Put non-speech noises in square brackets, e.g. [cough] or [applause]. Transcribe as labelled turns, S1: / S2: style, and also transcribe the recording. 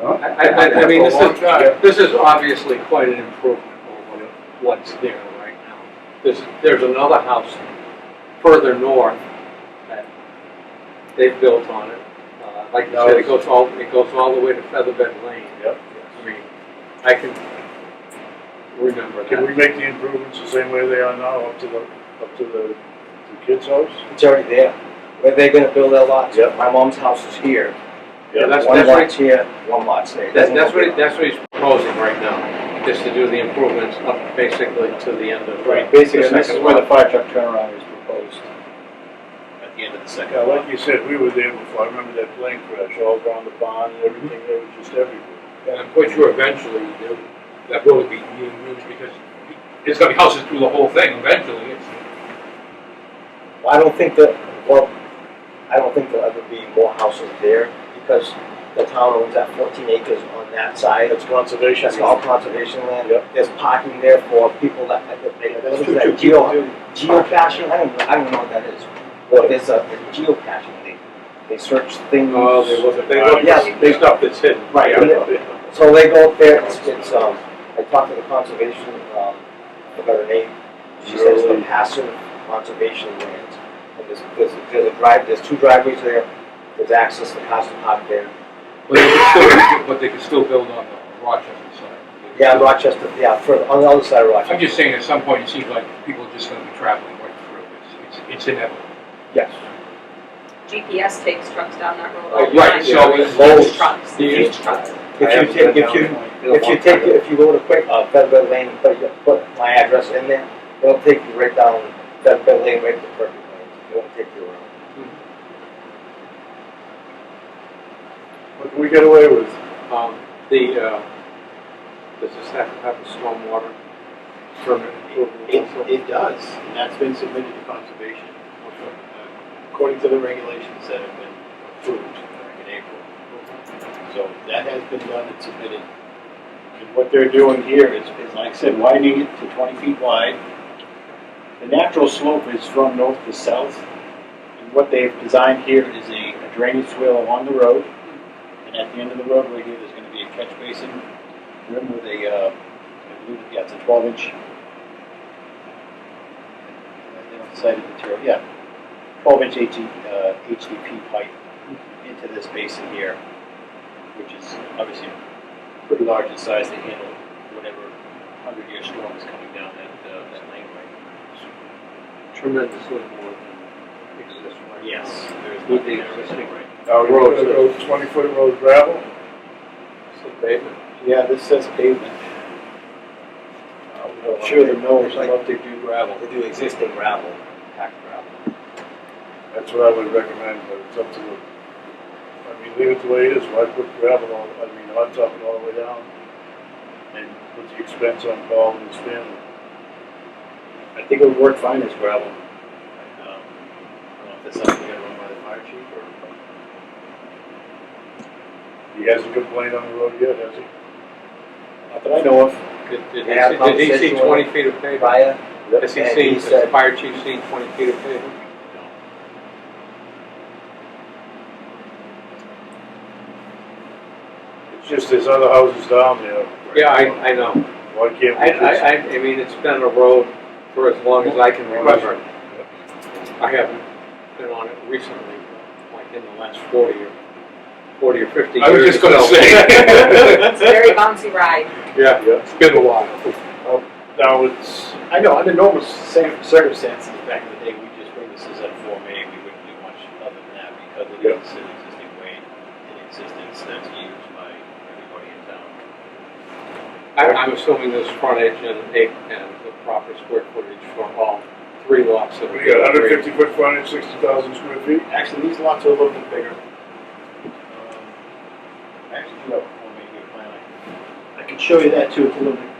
S1: Huh?
S2: I, I, I mean, this
S3: For a long time.
S2: is, this is obviously quite an improvement over what- what's there right now. There's, there's another house further north that they've built on it. Uh, Like you said, it goes all, it goes all the way to Featherbed Lane.
S3: Yep.
S2: I mean, I can remember
S3: Can
S2: that.
S3: we make the improvements the same way they are now up to the, up to the, the kids' house?
S1: It's already there. Where they're gonna build their lots,
S3: Yeah.
S1: my mom's house is here.
S2: Yeah, that's-
S1: One
S2: right.
S1: lot's here, one lot's there.
S2: That's, that's what, he- that's what he's proposing right now, is to do the improvements up basically to the end of.
S4: Right, basically,
S2: the
S4: this is
S2: second
S4: where the
S2: lot,
S4: fire truck turnaround is proposed. At the end of the second
S3: Yeah,
S4: lot.
S3: like you said, we were there before, I remember that plane crash, all down the pond and everything, it was just everywhere.
S4: Yeah.
S5: I'm quite sure eventually there- that road will be being used because it's gonna be houses through the whole thing eventually. It's-
S1: I don't think that, well, I don't think there'll ever be more houses there because the town owns that fourteen acres on that side.
S3: That's conservation.
S1: That's all conservation land.
S3: Yep.
S1: There's parking there for people that, that they,
S3: That's
S1: that's
S3: true, too. People
S1: that geo,
S3: do.
S1: geocaching, I don't, know- I don't know what that is. But there's a a geocaching, they, they search things.
S2: Oh, they look, they
S5: Uh,
S2: look,
S1: Yes.
S2: they stuff that's hidden.
S1: Right,
S2: Yeah.
S1: yeah. So they go up there, it's, it's, um, I talked to the conservation, um, I forgot her name, she says the
S3: Really?
S1: passive conservation lands. And there's, there's, there's a drive, there's two driveways there, there's access to passive park there.
S5: But they could still, but they could still build on the Rochester side.
S1: Yeah, Rochester, yeah, further, on the other side of Rochester.
S5: I'm just saying, at some point, it seems like people are just gonna be traveling right through. It's, it's- it's inevitable.
S1: Yes.
S6: GPS takes trucks down that road
S5: Oh,
S6: all the
S5: right,
S6: time.
S5: so it's-
S6: Huge trucks,
S1: Yeah.
S6: huge trucks.
S1: If you take, if you, if you take, if you go to quick, uh, Federal Lane, and put, your- put my address in there, it'll take you right down Federal Lane, right to Perfect Lane, it won't take you around.
S3: What can we get away with?
S2: Um, the, uh, does this have to have a stormwater permit approval
S7: It,
S2: also?
S7: it does, and that's been submitted to conservation. uh, According to the regulations that have been approved back in April. So that has been done and submitted. And what they're doing here is, is like I said, widening it to twenty feet wide. The natural slope is from north to south. And what they've designed here is a a drainage swale along the road. And at the end of the roadway here, there's gonna be a catch basin rim with a, uh, I believe, yeah, it's a twelve inch they don't decide the material, yeah, twelve inch HE, uh, HDP pipe into this basin here, which is obviously pretty large in size to handle whatever hundred year storm is coming down that, uh, that laneway.
S2: Tremendously more than exists right now.
S7: Yes, there's
S2: With the
S7: nothing there.
S2: existing
S3: Are we
S2: Uh, Roads.
S3: gonna go twenty foot road gravel?
S2: It's the pavement.
S7: Yeah, this says pavement. I'm sure the mills would love to do gravel.
S1: They do existing gravel, packed gravel.
S3: That's what I would recommend, but it's up to the, I mean, leave it the way it is, why put gravel all, I mean, hot top it all the way down? And put the expense on Paul and his family.
S7: I think it would work fine as gravel. Um, I don't know if that's something we gotta run by the fire chief or. uh,
S3: He hasn't complained on the road yet, has he?
S7: Not that I know of.
S2: Did, did
S1: They have
S2: he see, did he see
S1: conversation
S2: twenty feet of pavement?
S1: Prior,
S2: Has he
S1: and
S2: seen,
S1: he
S2: has the
S1: said-
S2: fire chief seen twenty feet of pavement?
S3: It's just there's other houses down there.
S2: Yeah, I, I know.
S3: Why can't
S2: I,
S3: we
S2: I,
S3: just?
S2: I, I mean, it's been a road for as long as I can remember. I haven't been on it recently, like in the last forty or, forty or fifty years.
S5: I was just gonna
S2: so-
S3: [laughs]
S5: say.
S6: It's a very bouncy ride.
S2: Yeah,
S5: It's been a while.
S3: Now it's,
S7: I know, under normal cir- circumstances, back in the day, we just bring this as a Form A, we wouldn't do much other than that because it
S3: Yeah.
S7: is an existing way in existence that's used by everybody in town.
S2: I, I'm assuming there's frontage and eight, and the proper square footage for all three lots that are.
S3: we got hundred fifty foot frontage, sixty thousand square feet.
S7: Actually, these lots are a little bit bigger. Um, I actually do have a Form A here, plan. I- I can show you that too, it's a little bit